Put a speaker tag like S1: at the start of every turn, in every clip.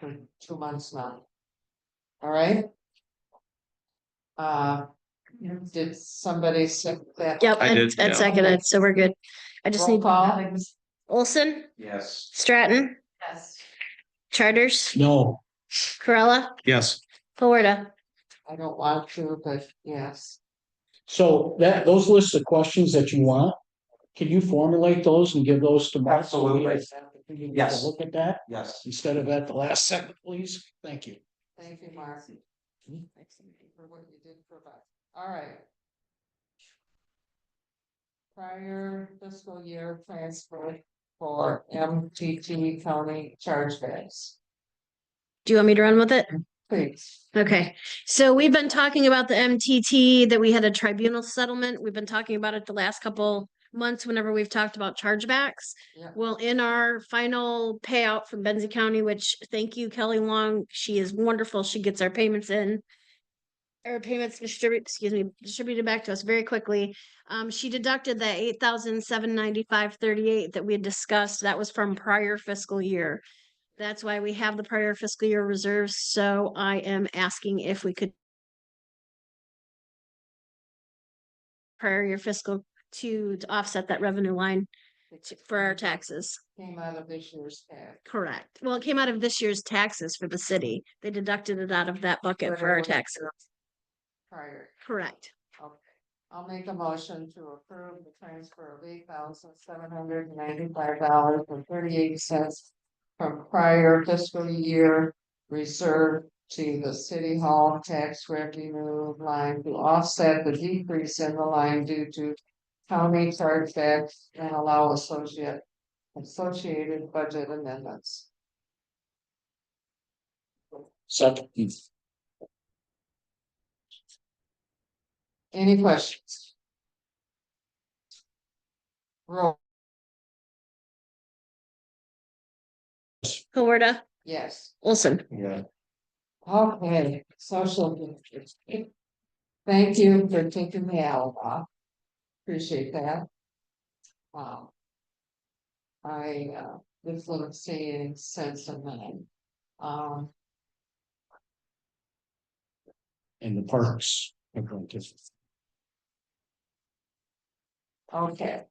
S1: for two months now. All right? Uh, did somebody second that?
S2: Yep,
S3: I
S2: Ed
S3: did, yeah.
S2: Ed seconded, so we're good. I just
S1: Roll
S2: need
S1: call?
S2: Olson,
S3: Yes.
S2: Stratton,
S1: Yes.
S2: Charters,
S3: No.
S2: Corella,
S3: Yes.
S2: Florida.
S1: I don't want to, but yes,
S4: So that, those lists of questions that you want, can you formulate those and give those to Mark? so we
S5: Absolutely.
S4: have an opportunity to
S5: Yes.
S4: Look at that
S5: Yes.
S4: instead of at the last second, please. Thank you.
S1: thank you, Mark. Thanks For what you did provide, all right. Prior fiscal year transfer for MTT county chargebacks,
S2: Do you want me to run with it?
S1: please.
S2: Okay, so we've been talking about the MTT, that we had a tribunal settlement. We've been talking about it the last couple months whenever we've talked about chargebacks.
S1: Yeah.
S2: Well, in our final payout from Benzie County, which thank you Kelly Long, she is wonderful. She gets our payments in. Our payments distribute, excuse me, distributed back to us very quickly. Um, she deducted that eight thousand seven ninety-five thirty-eight that we had discussed. That was from prior fiscal year. That's why we have the prior fiscal year reserves, so I am asking if we could. Prior year fiscal to to offset that revenue line to- for our taxes,
S1: Came out of this year's tax.
S2: correct? Well, it came out of this year's taxes for the city. They deducted it out of that bucket
S1: But
S2: for
S1: it
S2: our
S1: was
S2: taxes,
S1: Prior,
S2: correct?
S1: okay. I'll make a motion to approve the transfer of eight thousand seven hundred ninety-five dollars and thirty-eight cents. From prior fiscal year reserve to the city hall tax revenue line to offset the decrease in the line due to. County chargebacks and allow associate, associated budget amendments.
S4: Second.
S1: Any questions? Roll,
S2: Huarda,
S1: yes.
S2: Olson.
S5: Yeah.
S1: Okay, social. distancing. Thank you for taking the hour off. Appreciate that. Wow. I, uh, this little saying sense of mine. Um,
S4: And the parks. are going to-
S1: okay.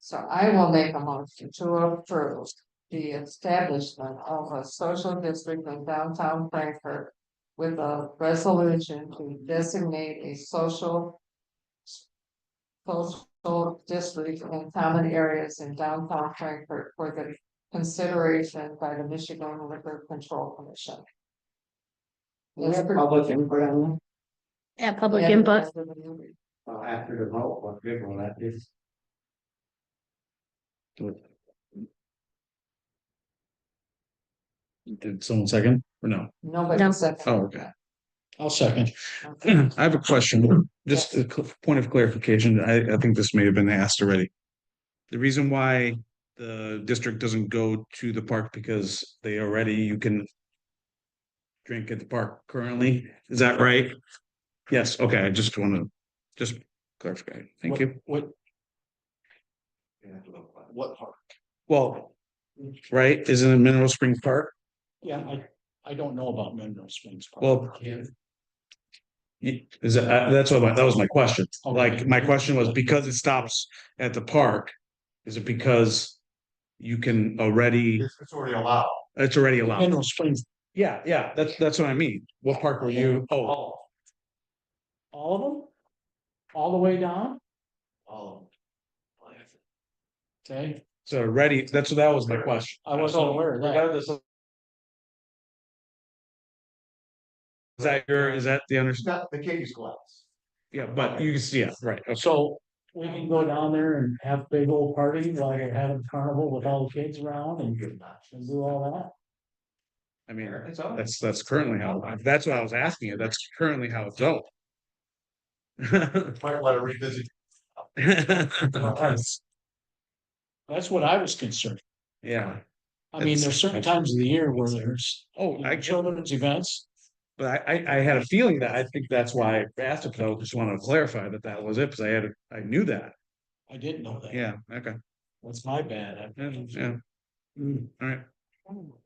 S1: So I will make a motion to approve the establishment of a social district in downtown Frankfurt. With a resolution to designate a social. Social district and common areas in downtown Frankfurt for the consideration by the Michigan Liquor Control Commission.
S5: We have public input on
S2: Yeah, public input.
S5: that, uh, after the vote, what good will that is?
S3: Did someone second or no?
S1: Nobody
S2: No.
S1: said. that.
S3: Oh, okay.
S4: I'll second.
S3: I have a question, just a cl- point of clarification. I, I think this may have been asked already. The reason why the district doesn't go to the park because they already, you can drink at the park currently, is that right? Yes, okay, I just want to, just clarify. Thank
S4: What-
S3: you.
S4: What? What park?
S3: Well, right, isn't it Mineral Springs Park?
S4: Yeah, I, I don't know about Mineral Springs. Park.
S3: Well- Ye- Is that, uh, that's what my, that was my question.
S4: Okay.
S3: Like, my question was because it stops at the park, is it because you can already,
S5: It's already allowed.
S3: it's already allowed?
S4: Mineral Springs,
S3: Yeah, yeah, that's, that's what I mean. What park were you? Oh,
S4: all. All of them? All the way down?
S5: All of them.
S4: Okay,
S3: so already, that's, that was my question.
S4: I wasn't aware of that.
S3: Regardless of- Is that your, is that the
S5: It's
S3: understanding?
S5: not the kitty's glass.
S3: Yeah, but you can see, yeah, right, okay.
S4: So we can go down there and have a big old party like I had a carnival with all the kids around and
S5: Good enough.
S4: and do all
S3: I mean,
S5: It's all.
S3: that's, that's currently how, that's what I was asking you, that's currently how it's built.
S5: Might want to revisit.
S4: that. That's what I was concerned.
S3: Yeah,
S4: I mean, there's certain times of the year where there's you
S3: oh,
S4: know,
S3: I,
S4: children's events.
S3: but I, I, I had a feeling that, I think that's why I asked it, but I just wanted to clarify that that was it, because I had, I knew that,
S4: I didn't know that.
S3: yeah, okay,
S4: That's my bad. I-
S3: yeah, yeah. Mm, all right,